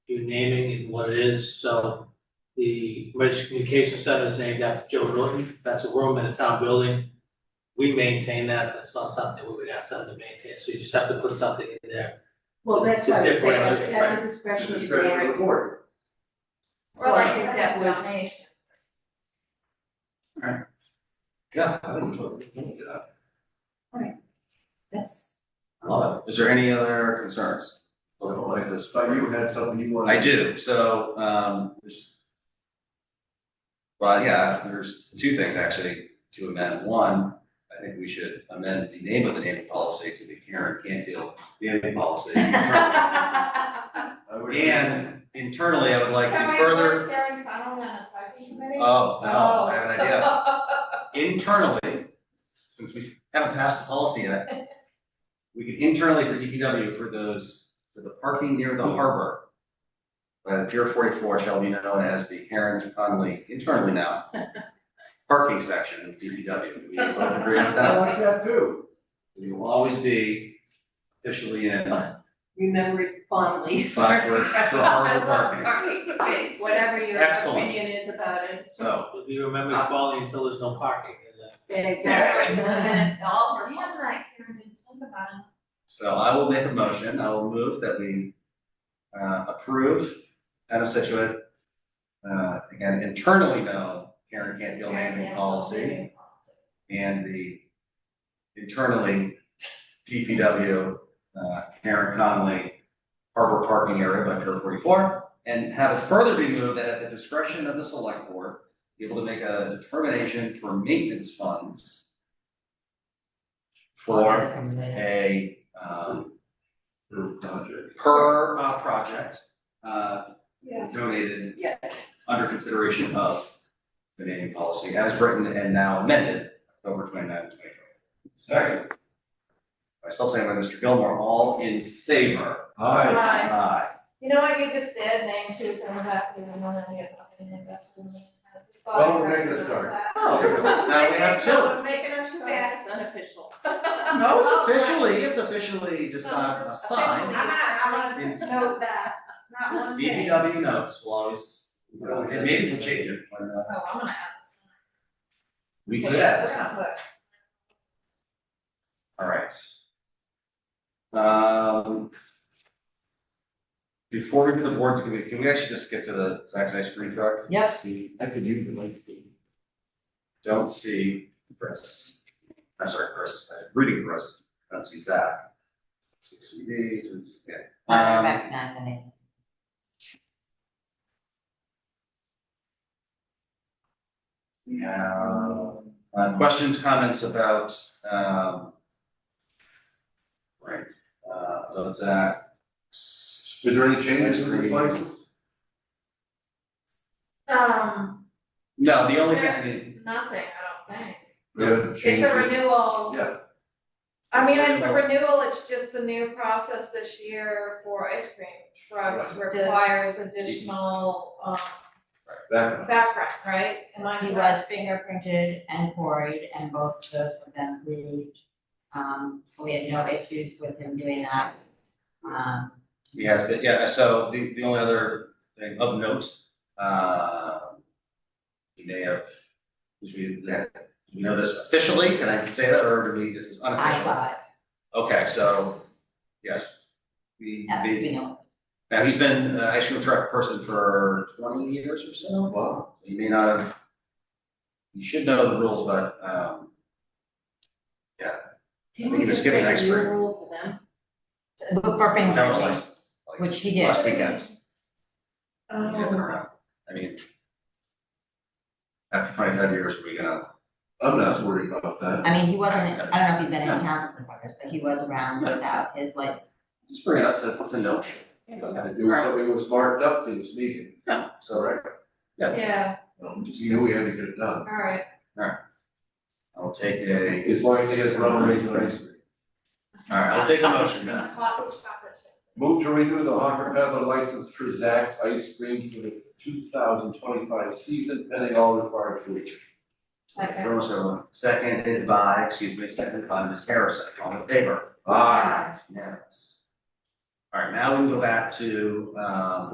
naming and what it is, so. The Emergency Communication Center is named after Joe Norton, that's a room in a town building. We maintain that, that's not something we would ask them to maintain, so you just have to put something in there. Well, that's why I would say at the- at Differentiate, the discretion of the Discretion of board. the board. So I think that would, donation. Yeah. I think so. Look it up. that's, I love Is there any other concerns? it. Look like this, but you had something you wanted. I do, so, um, there's. Well, yeah, there's two things actually to amend. One, I think we should amend the name of the naming policy to the Karen Canfield naming policy. I would- And internally, I would like to further, Karen Connell on a parking committee? oh, no, I have an idea. internally, since we haven't passed the policy yet, we could internally for DPW for those, for the parking near the harbor. By the Pier forty-four shall be known as the Heron Conley, internally now, parking section of DPW. We both agree with I that. like that too. We will always be officially in remember it fondly for. Fine, we're- we're hard at work. Parking space, whatever your Excellence. opinion is about it. so. But you remember the quality until there's no parking, and then Exactly. All Damn, for fun. like, Karen, think about it. So I will make a motion, I will move that we uh approve town of Situate. Uh again, internally known Karen Canfield naming policy and the internally DPW uh Karen Conley. Harbor parking area by Pier forty four and have it further be moved that at the discretion of the select board. Be able to make a determination for maintenance funds. For a, um, Little project. per, uh, project, uh, Yeah. donated Yes, under consideration of the naming policy as written and now amended October twenty-nine, twenty twenty. Second. Myself, second by Mr. Gilmore, all in favor? All right. Right. Aye. You know what, you just did, name two, come back, you one of your, and then that's the name. Well, we're making a start. Oh, there we go. now we have two. We're making a two back. that's unofficial. No, it's officially, it's officially just not a Officially. sign. I wanna, I It's- wanna note that, not one thing. DPW notes will always, and maybe we'll change it, but uh, Oh, I'm gonna add this. we could add this. We're gonna put- All right. Um. Before we do the boards, can we, can we actually just skip to the Zack's ice cream truck? Yep. See, I could use the light. scheme. Don't see Chris. I'm sorry, Chris, I'm reading Chris, I don't see Zach. See CDs, yeah. Um, yeah. Uh, questions, comments about, um. Right, uh, about Zach. Is there any changes in this license? Um, No, the only thing, there's nothing, I don't think. We haven't It's changed a it. renewal. Yeah. I mean, it's a renewal, it's just the new process this year for ice cream trucks Right. requires additional, um, That, background, right? Am I He correct? was fingerprinted and quarried, and both of those have been approved. Um, we had no issues with him doing that. Um, He has been, yeah, so the, the only other thing of note, uh, he may have, which we, that, do we know this officially, can I say that, or do we, this is I unofficial? thought, Okay, so, yes, we, as we- we know, now he's been an ice cream truck person for twenty years or so, wow, he may not have, you should know the rules, but, um, Can We we can just skip make an a new expert. rule for them? but for no fingerprinting, license. like, which he did. Oh. Last weekend. Yeah, Oh. they're around. I mean, after twenty-five years, we're gonna, I'm not worried about that. I mean, he wasn't, I don't know if he's been in town for years, but he was around without his license. just bring it up to, to note. You don't have to do something was marked up for this meeting. So, right, Yeah, Um, You knew we had to get it done. all right. I'll take a, As long as he has runaways and ice cream. all right, I'll take a motion now. Hot chocolate chip. Move to renew the Hocker Peddler license for Zack's Ice Cream for the two thousand twenty-five season, pending all required features. Okay. There was a seconded by, excuse me, seconded by Ms. Harrison, all in favor? Aye. It's unanimous. All right, now we can go back to, um,